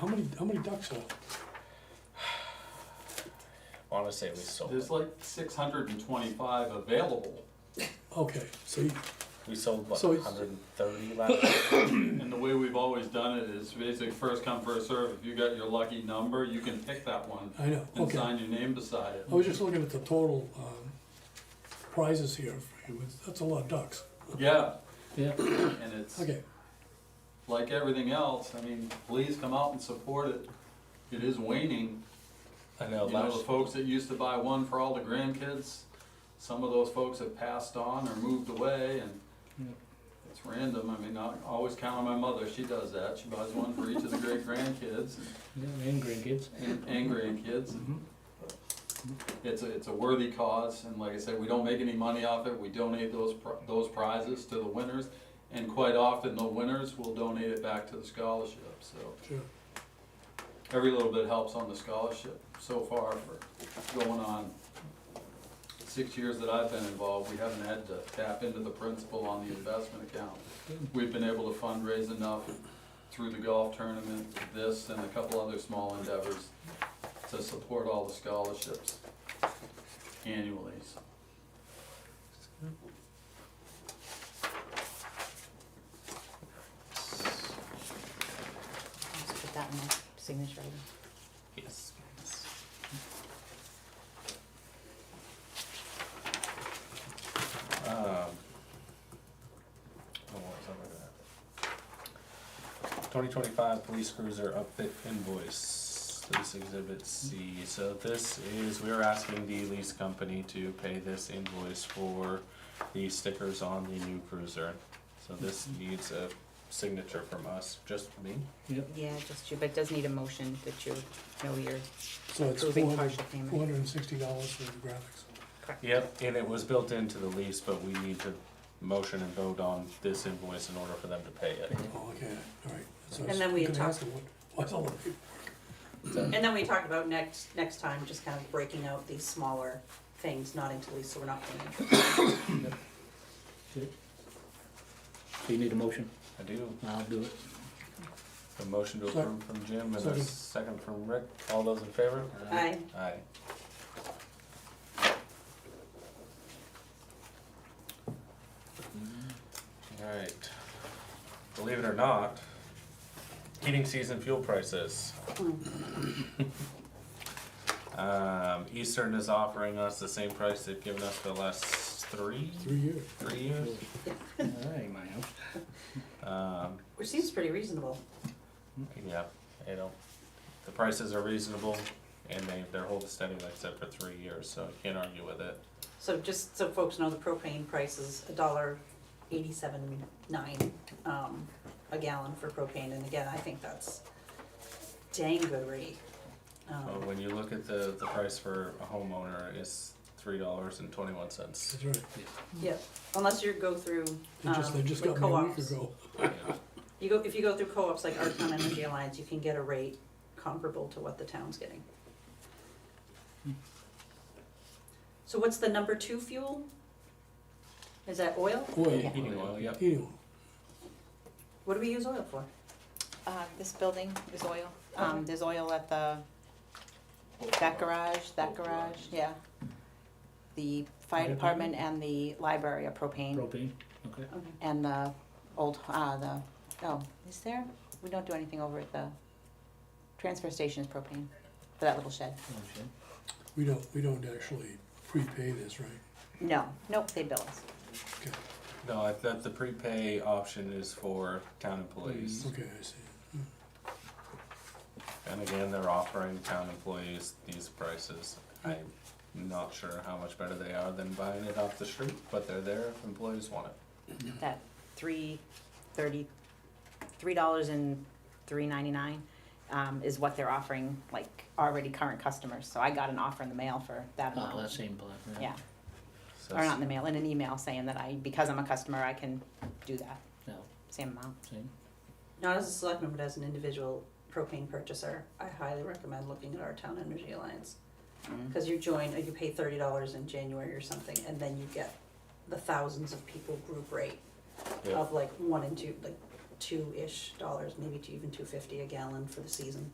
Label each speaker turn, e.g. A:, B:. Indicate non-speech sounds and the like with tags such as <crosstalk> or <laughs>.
A: How many, how many ducks are?
B: Honestly, it was sold.
C: There's like six hundred and twenty-five available,
A: Okay, so you,
B: We sold what,
A: So it's-
B: 130 last year?
C: and the way we've always done it is basically first come, first serve. If you got your lucky number, you can pick that one
A: I know,
C: and
A: okay.
C: sign your name beside it.
A: I was just looking at the total, um, prizes here for you, that's a lot of ducks.
C: Yeah,
D: Yeah,
C: and it's
A: Okay,
C: like everything else, I mean, please come out and support it. It is waning,
B: I know.
C: you know,
B: Last
C: the folks that used to buy one for all the grandkids, some of those folks have passed on or moved away and
D: Yeah.
C: it's random, I mean, I always count on my mother, she does that, she buys one for each of the great grandkids
D: yeah, and grandkids.
C: and and grandkids. It's a, it's a worthy cause, and like I said, we don't make any money off it, we donate those, pri- those prizes to the winners, and quite often, the winners will donate it back to the scholarship, so
A: sure.
C: every little bit helps on the scholarship so far for going on six years that I've been involved, we haven't had to tap into the principal on the investment account. We've been able to fundraise enough through the golf tournament, this and a couple other small endeavors to support all the scholarships annually. So
E: Let's put that in my signature.
B: Yes. Um, oh, what's over that? 2025 police cruiser upfit invoice. This exhibit C. So this is we are asking the lease company to pay this invoice for the stickers on the new cruiser. So this needs a signature from us, just me.
D: Yep.
E: Yeah, just you, but it does need a motion that you know you're
A: So it's four
E: approving
A: hundred,
E: partial
A: four
E: payment.
A: hundred and sixty dollars for the graphics.
E: Correct.
B: Yep, and it was built into the lease, but we need to motion and vote on this invoice in order for them to pay it.
A: Oh, okay, all right. That's what I
E: And
A: was
E: then we
A: gonna
E: talk-
A: ask them, what- What's all the people?
E: And then we talked about next, next time, just kind of breaking out these smaller things, not into lease, so we're not paying.
D: So you need a motion?
B: I do.
D: I'll do <laughs> it.
B: A motion to
A: Sec-
B: approve from Jim and a
A: second.
B: second from Rick. All those in favor?
E: Aye.
B: Aye. Alright. Believe it or not, heating season fuel prices. Um, Eastern is offering us the same price they've given us for the last three,
A: Three years.
B: three years.
D: All right, my house.
B: Um,
E: Which seems pretty reasonable.
B: yeah, you know, the prices are reasonable and they, they're holding steady like I said for three years, so you can't argue with it.
E: So just so folks know, the propane price is a dollar eighty-seven nine, um, a gallon for propane, and again, I think that's dang good rate.
B: But
E: Um,
B: when you look at the, the price for a homeowner, it's three dollars and twenty-one cents.
A: That's right.
E: yeah, unless you go through,
A: They just, they
E: um,
A: just
E: like
A: got me a week
E: co-ops.
A: ago.
E: You go, if you go through co-ops like Our Town Energy Alliance, you can get a rate comparable to what the town's getting. So what's the number two fuel? Is that oil?
A: Oil,
B: <laughs> Heating oil, yep.
A: heating oil.
E: What do we use oil for?
F: Uh, this building is oil.
E: Okay.
F: Um, there's oil at the, that garage, that garage, yeah. The fire
D: Fire
F: department and the library are propane,
D: Propane, okay.
E: Okay.
F: and the old, uh, the, oh, is there? We don't do anything over at the transfer station is propane, for that little shed.
D: Oh, shit.
A: We don't, we don't actually prepay this, right?
F: No, nope, they bill us.
A: Okay,
B: No, I thought the prepay option is for town employees.
A: okay, I see.
B: And again, they're offering town employees these prices. I'm not sure how much better they are than buying it off the street, but they're there if employees want it.
F: That three thirty, three dollars and three ninety-nine, um, is what they're offering, like, already current customers. So I got an offer in the mail for that amount.
D: Oh, that same block, yeah.
F: Yeah,
B: So
F: or not in the mail, in an email saying that I, because I'm a customer, I can do that,
D: No,
F: same amount.
D: same.
E: Not as a selectman, but as an individual propane purchaser, I highly recommend looking at Our Town Energy Alliance. Cause you join, or you pay thirty dollars in January or something, and then you get the thousands of people group rate.
B: Yeah.
E: of like one and two, like two-ish dollars, maybe to even two fifty a gallon for the season.